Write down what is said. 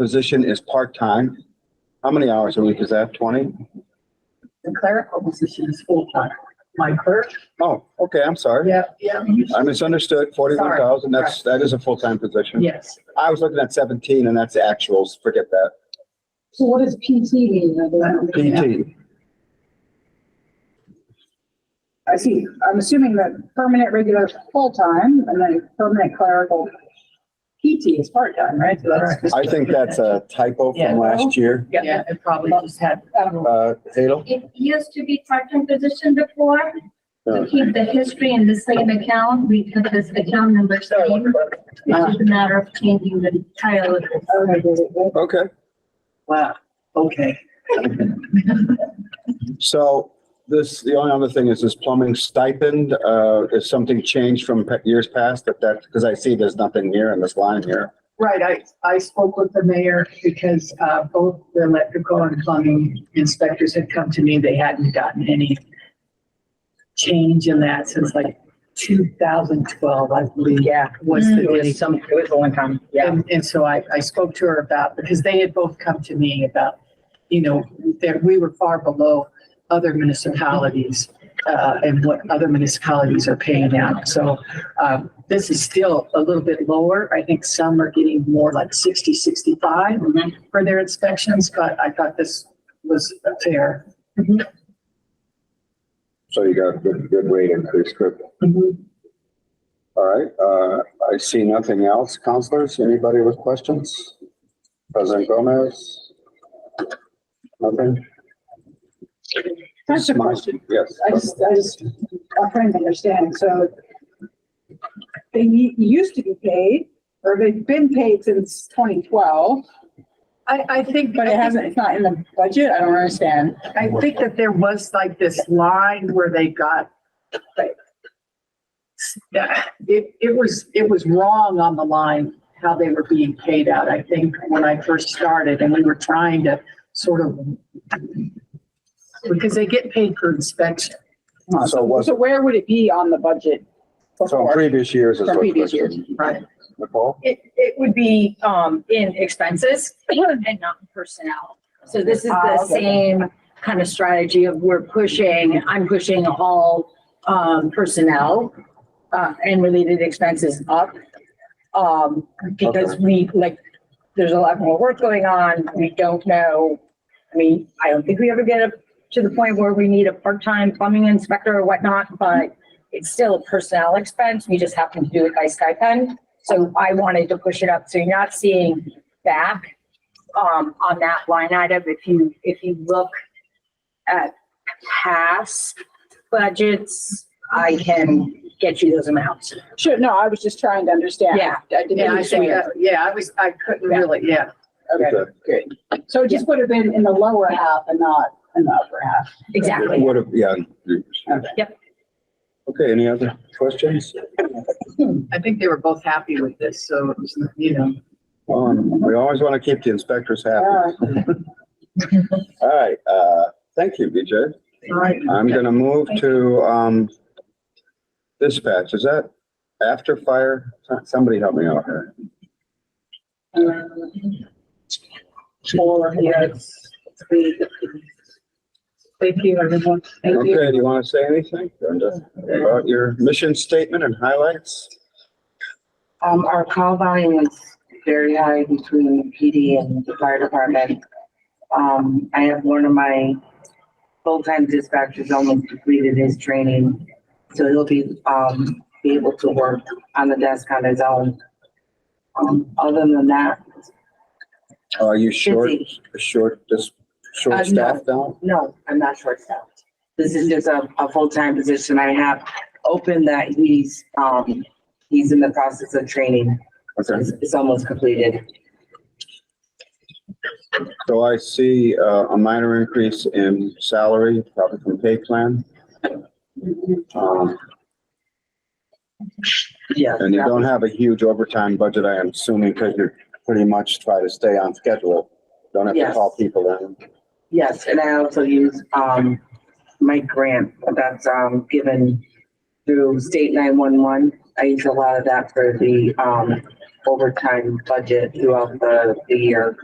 position is part-time. How many hours a week is that? Twenty? The clerical position is full-time. My clerk? Oh, okay, I'm sorry. Yeah, yeah. I misunderstood. Forty-one thousand, that's, that is a full-time position. Yes. I was looking at seventeen and that's the actuals. Forget that. So what does PT mean? I don't- PT. I see, I'm assuming that permanent regular is full-time and then permanent clerical PT is part-time, right? So that's Correct. just- I think that's a typo Yeah. from last year. Yeah, it probably just had, I don't know. Uh, Hadel? It used to be part-time position before, to keep the history in the same account, we took this account number same. It's just a matter of changing the title. of it. Okay, good, good. Okay, wow, okay. so this, the only other thing is this plumbing stipend, uh, is something changed from pe- years past that that, because I see there's nothing here in this line here. Right, I, I spoke with the mayor because, uh, both the electrical and plumbing inspectors had come to me. They hadn't gotten any change in that since like two thousand twelve, I believe. Yeah, Was the it was dis- some, it was a one time, yeah. And, and so I, I spoke to her about, because they had both come to me about, you know, that we were far below other municipalities, uh, and what other municipalities are paying out. So, um, this is still a little bit lower. I think some are getting more like 60, 65 for their inspections, but I thought this was fair. So you got a good, good rate increase, good. All right, uh, I see nothing else. Counselors, anybody with questions? President Gomez? Nothing? That's a Smile. question. Yes. I just, I just, I'm trying to understand, so they u- used to be paid, or they've been paid since twenty twelve, I, I think. but it hasn't, it's not in the budget, I don't understand. I think that there was like this line where they got, like, it, it was, it was wrong on the line, how they were being paid out, I think, when I first started, and we were trying to sort of, because they get paid per inspection. So was, So where would it be on the budget? so in before? previous years is From what previous Kristen, Right. Nicole? It, it would be, um, in expenses and not in personnel. So this is Ah, the okay. same kind of strategy of we're pushing, I'm pushing all, um, personnel, uh, and related expenses up. Um, because we, like, there's a lot more work going on. We don't know. I mean, I don't think we ever get up to the point where we need a part-time plumbing inspector or whatnot, but it's still a personnel expense. We just happen to do it by stipend. So I wanted to push it up. So you're not seeing back um, on that line item. If you, if you look at past budgets, I can get you those amounts. Sure, no, I was just trying to understand. Yeah. I didn't Yeah, I think, understand. that- yeah, I was, I couldn't really, yeah. Okay, Okay. good. So it just would have been in the lower half and not in the upper half. It Would have, yeah. Yep. Okay, any other questions? I think they were both happy with this, so it was, you know. Um, we always want to keep the inspectors happy. Yeah. All right, uh, thank you, BJ. All right. I'm gonna move to, um, dispatch. Is that after fire? Somebody help me out here. Four, yes, three. Thank you, everyone. Thank you. Okay, do you want to say anything Brenda, about your mission statement and highlights? Um, our call volume is very high between PD and the fire department. Um, I have one of my full-time dispatchers almost completed his training. So he'll be, um, be able to work on the desk on his own. Um, other than that, Are you short, busy. short, just short Uh, no. staffed now? No, I'm not short-staffed. This is just a, a full-time position I have open that he's, um, he's in the process of training. Okay, It's, it's almost completed. so I see, uh, a minor increase in salary, probably from pay plan. Um, Yes. and you don't have a huge overtime budget, I am assuming, because you're pretty much try to stay on schedule. Don't have to Yes. call people in. Yes, and I also use, um, my grant that's, um, given through state nine-one-one. I use a lot of that for the, um, overtime budget throughout the, the year.